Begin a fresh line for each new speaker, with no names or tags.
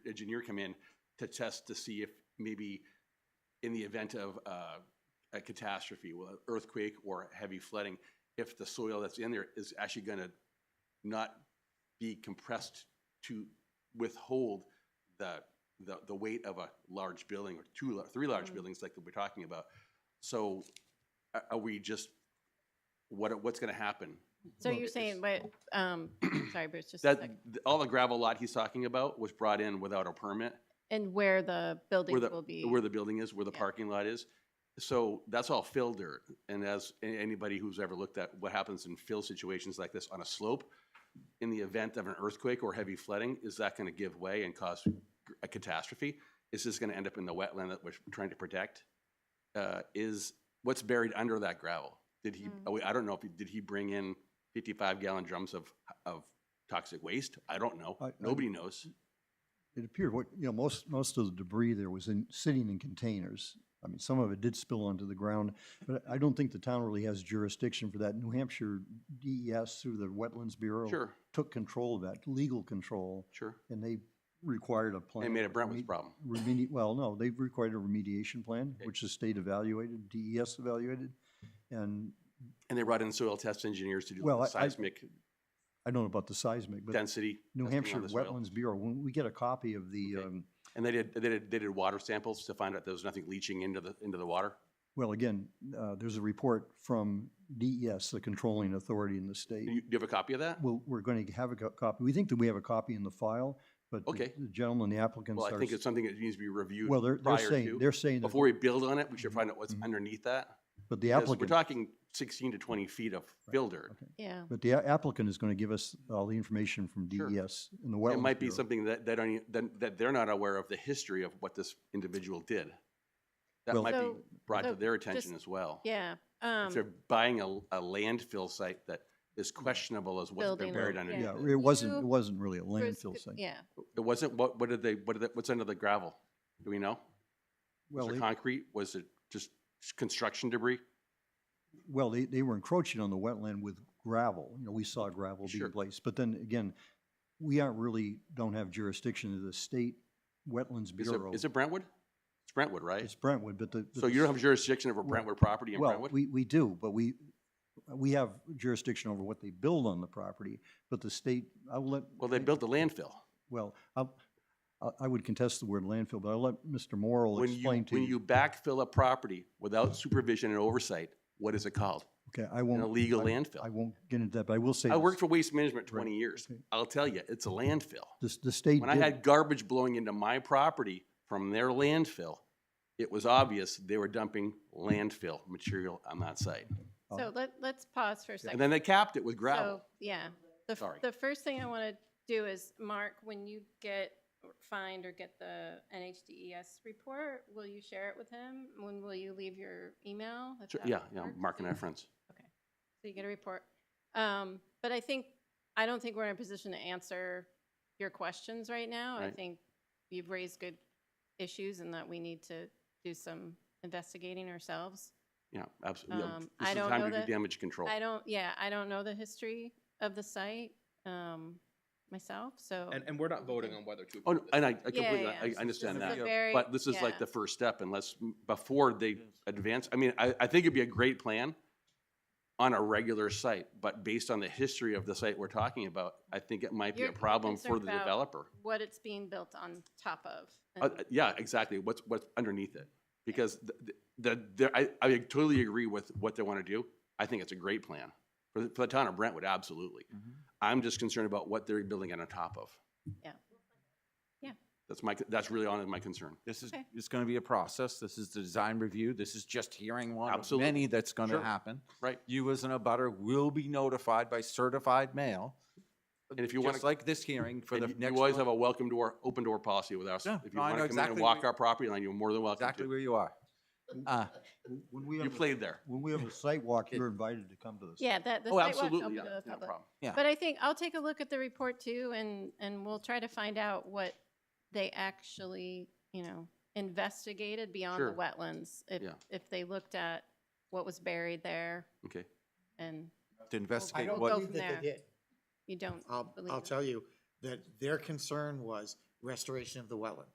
engineer come in to test to see if maybe in the event of uh, a catastrophe, well, earthquake or heavy flooding, if the soil that's in there is actually going to not be compressed to withhold the, the, the weight of a large building or two, lar- three large
Mm.
buildings like that we're talking about. So a- are we just, what, are- what's going to happen?
So
Well,
you're
it's-
saying, but, um, sorry, Bruce, just a
That,
sec.
th- all the gravel lot he's talking about was brought in without a permit,
And where the buildings
the-
will be.
where the building is, where the
Yeah.
parking lot is. So that's all fill dirt. And as a- anybody who's ever looked at what happens in fill situations like this on a slope, in the event of an earthquake or heavy flooding, is that going to give way and cause gr- a catastrophe? Is this going to end up in the wetland that we're trying to protect? Uh, Is, what's buried under that gravel? Did he,
Mm.
oh, I don't know, if he- did he bring in 55 gallon drums of, of toxic waste? I don't know.
I- I-
Nobody knows.
It appeared what, you know, most, most of the debris there was in, sitting in containers. I mean, some of it did spill onto the ground, but I don't think the town really has jurisdiction for that. New Hampshire DES through the Wetlands Bureau
Sure,
took control of that, legal control,
sure.
and they required a plan.
They made a Brentwood's
remedi-
problem.
remedi- well, no, they've required a remediation plan,
Okay.
which the state evaluated, DES evaluated. And
And they brought in soil test engineers to do
Well, I- I-
seismic
I don't know about the seismic, but
density.
New
testing on
Hampshire
the soil.
Wetlands Bureau, when we get a copy of the,
Okay.
um,
And they did, they did, they did water samples to find out there was nothing leaching into the, into the water.
Well, again, uh, there's a report from DES, the controlling authority in the state.
Do you, do you have a copy of that?
We'll, we're going to have a co- copy. We think that we have a copy in the file, but the-
Okay.
the gentleman, the applicant,
Well, I think it's
starts.
something that needs to be reviewed
Well, they're, they're
prior
saying,
to.
they're saying, that,
Before we build on it, we should
Mhm,
find out what's
mhm.
underneath that.
but the
Because We're
applicant,
talking sixteen to twenty feet of fill dirt.
okay.
Yeah,
but the a- applicant is going to give us all the information from
Sure.
DES and the
It
Wetlands
might be
Bureau.
something that, that, don't e- that, that they're not aware of the history of what this individual did. That
Well-
might be
So-
brought to
so
their
just-
attention as well.
yeah.
If they're
Um,
buying a, a landfill site that is questionable as what's
Building
been
on-
buried
yeah.
underneath
Yeah,
it.
it wasn't,
You-
it wasn't really a
Bruce,
landfill
could-
site.
Yeah,
It wasn't, what, what did they, what did, they- what's under the gravel? Do we know? Was
Well,
it
they-
concrete? Was it just construction debris?
Well, they, they were encroaching on the wetland with gravel. You know, we saw gravel
Sure.
being placed. But then again, we aren't really, don't have jurisdiction of the state wetlands
Is it,
bureau.
is it Brentwood? It's Brentwood, right?
It's Brentwood, but the.
So you don't have jurisdiction over
Well-
Brentwood property in
Well,
Brentwood?
we, we do, but we, we have jurisdiction over what they build on the property, but the state, I'll let.
Well, they
I-
built the landfill.
Well, I'll- I, I would contest the word landfill, but I'll let Mr. Morrell
When you,
explain to
when
you.
you backfill a property without supervision and oversight, what is it called?
Okay, I
An
won't.
illegal
I- I
landfill.
won't get into that, but I will say.
I
this.
worked for Waste Management
Right,
twenty years.
okay.
I'll tell you, it's a landfill.
The, the state.
When I
did-
had garbage blowing into my property from their landfill, it was obvious they were dumping landfill material on that site.
Oh.
so let, let's pause for a second.
And then they capped it with gravel.
So, yeah. The, f-
Sorry.
the first thing I want to do is, Mark, when you get, or find or get the NHDES E report, will you share it with him? When will you leave your email? if
Sure,
that
yeah, yeah,
works?
Mark and I
So-
are friends.
So you get a report. Um, but I think, I don't think we're in a position to answer your questions right now. I
Right.
think you've raised good issues and that we need to do some investigating ourselves.
Yeah, absolutely.
Um, I
This is the
don't know
time to
that-
do damage control.
I don't, yeah, I don't know the history of the site, um, myself, so.
And, and we're not voting on whether to
Oh,
approve
no,
this.
and I I
Yeah,
completely,
yeah,
I I
yeah.
understand
This is
that.
a very-
But this is
yeah.
like the first step unless, before they advance, I mean, I, I think it'd be a great plan on a regular site, but based on the history of the site we're talking about, I think it might be a
You're
problem for
concerned
the
about-
developer.
What it's being built on top of.
Uh,
and-
uh, yeah, exactly. What's, what's underneath it? Because the, the, the, I, I totally agree with what they want to do. I think it's a great plan. For the, for the town of Brentwood, absolutely.
Mm-hmm.
I'm just concerned about what they're building on top of.
Yeah. Yeah.
That's my, that's really on my concern.
This is,
Okay.
it's going to be a process. This is the design review. This is just hearing one of
Absolutely.
many that's going
Sure.
to happen.
Right.
You as an abutter will be notified by certified mail.
And if you wanna-
Just like this hearing for
And
the
you-
next
You always
one,
have a welcome door, open door policy with us.
Yeah,
If you
no, I
want
know
to come in and
exactly
walk
where-
our property line, you're more than welcome
Exactly
to.
where you are. Uh,
When we
You
have a-
played there.
When we have a site walk, you're invited to come to this.
Yeah, that, the
Oh,
sidewalk's
absolutely,
open
yeah,
to the
no
public.
problem.
Yeah.
But I think I'll take a look at the report too and, and we'll try to find out what they actually, you know, investigated beyond the
Sure.
wetlands. If,
Yeah.
if they looked at what was buried there
Okay.
and
To
I
investigate
don't
Go
what,
believe
from
that
there.
they did.
you don't
I'll,
believe.
I'll
it.
tell you that their concern was restoration of the wetland.